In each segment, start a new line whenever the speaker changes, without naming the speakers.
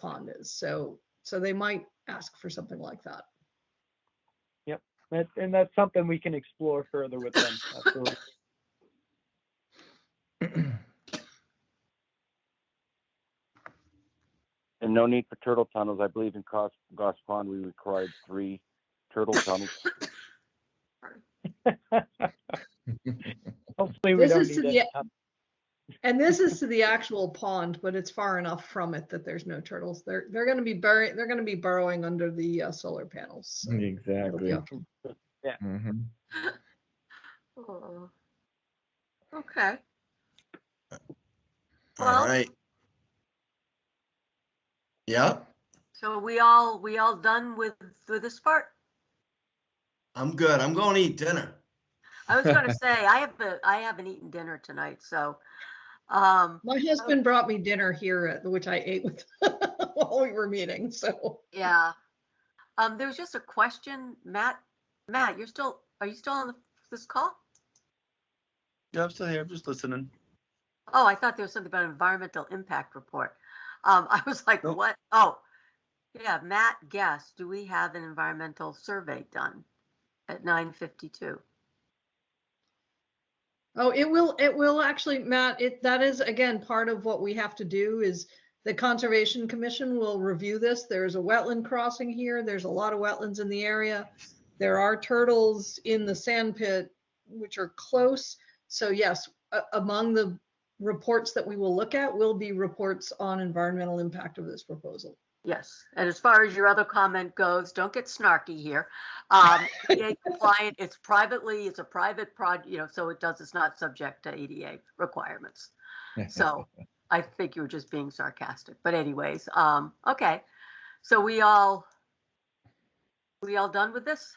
pond is. So, so they might ask for something like that.
That, and that's something we can explore further with them. Absolutely.
And no need for turtle tunnels. I believe in Goss, Goss Pond, we required three turtle tunnels.
Hopefully, we
This
don't
is to
need Um,
the-
that.
And this is to the actual pond, but it's far enough from it that there's no turtles. They're, they're gonna be buried, they're gonna be burrowing under the uh, solar panels. so it'll be
Exactly.
okay.
Mhm.
Oh. Okay, Well-
All right. Yeah,
so we all, we all done with, with this part?
I'm good. I'm going to eat dinner.
I was gonna say, I haven't, I haven't eaten dinner tonight, so, um,
My husband brought me dinner here, at- which I ate with while we were meeting, so.
yeah. Um, there was just a question, Matt, Matt, you're still, are you still on the- this call?
Yeah, I'm still here. I'm just listening.
Oh, I thought there was something about environmental impact report. Um, I was like,
Nope.
what? Oh, yeah, Matt guessed, do we have an environmental survey done at nine fifty-two?
Oh, it will, it will actually, Matt, it, that is, again, part of what we have to do is the Conservation Commission will review this. There's a wetland crossing here. There's a lot of wetlands in the area. There are turtles in the sand pit, which are close. So yes, a- among the reports that we will look at will be reports on environmental impact of this proposal.
Yes, and as far as your other comment goes, don't get snarky here. Um, ADA compliant, it's privately, it's a private prod, you know, so it does, it's not subject to ADA requirements. So I think you were just being sarcastic, but anyways, um, okay. So we all, we all done with this?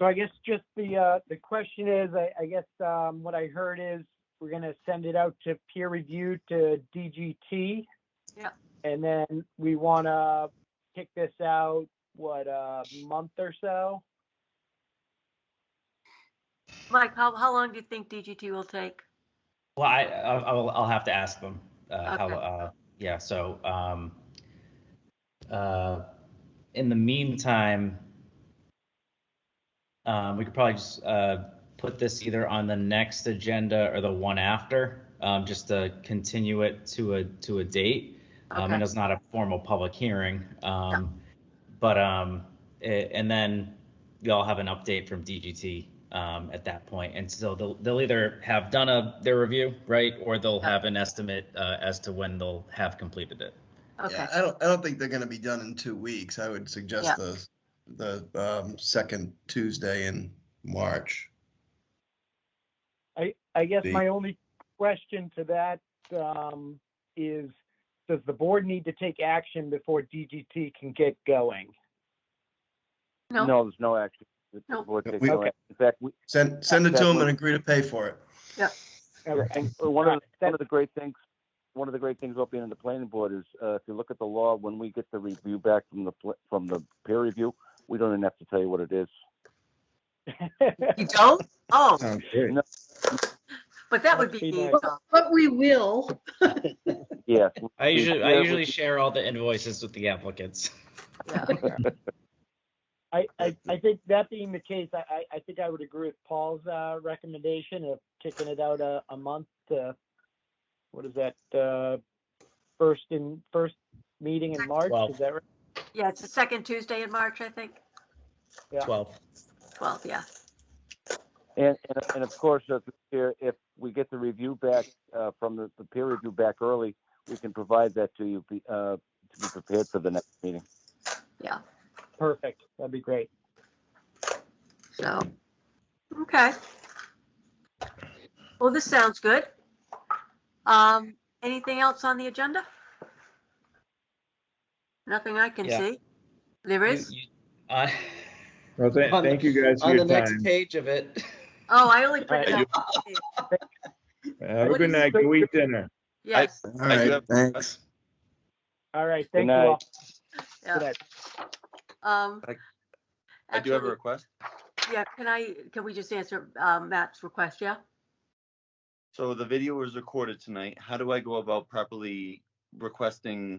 So I guess just the, uh, the question is, I, I guess, um, what I heard is we're gonna send it out to peer review to DGT.
Yeah.
And then we wanna kick this out, what, a month or so?
Mike, how, how long do you think DGT will take?
Well, I, I'll, I'll- I'll have to ask them, uh, how,
Okay.
uh, yeah, so, um, uh, in the meantime, um, we could probably just, uh, put this either on the next agenda or the one after, um, just to continue it to a, to a date. Um,
Okay.
and it's not a formal public hearing, um, but, um, a- and then y'all have an update from DGT um, at that point. And so they'll, they'll either have done a, their review, right? Or they'll have an estimate uh, as to when they'll have completed it.
Okay,
Yeah, I don't, I don't think they're going to be done in two weeks. I would
Yeah.
suggest the, the um, second Tuesday in March.
I, I guess
The-
my only question to that, um, is, does the board need to take action before DGT can get going?
no,
No, there's no action. The
No.
board takes
We-
no action. In fact, we,
Send, send it to them and
Exactly.
agree to pay for it.
Okay.
Well, One of, the-
That-
one of the great things, one of the great things about being in the planning board is, uh, if you look at the law, when we get the review back from the, pl- from the peer review, we don't even have to tell you what it is.
you don't? Oh,
Sounds great.
but that would be
That'd be
me,
nice.
so,
But we will.
Yes.
I usually, I
Yeah,
usually
we-
share all the invoices with the applicants.
yeah.
I, I, I think that being the case, I, I, I think I would agree with Paul's, uh, recommendation of kicking it out a, a month to, what is that, uh, first in, first meeting in March,
Twelve.
is that right?
Yeah, it's the second Tuesday in March, I think.
Yeah.
12.
12, yeah.
And, and, and of course, if, if we get the review back, uh, from the, the peer review back early, we can provide that to you, be- uh, to be prepared for the next meeting.
Perfect, that'd be great.
So, okay. Well, this sounds good. Um, anything else on the agenda? Nothing I can
Yeah.
see. There
You-
is?
you- uh,
Well, tha-
On-
thank you guys for
on the
your
next
time.
page of it.
Oh, I only printed
I
out.
Have
What
a good
is-
night. Go eat dinner.
Yes,
All
I do
right,
have-
thanks.
All right,
Good
thank you
night.
all. Good
yeah.
night.
Um,
I- I do have a
actually,
request.
Yeah, can I, can we just answer um, Matt's request, yeah?
So the video was recorded tonight. How do I go about properly requesting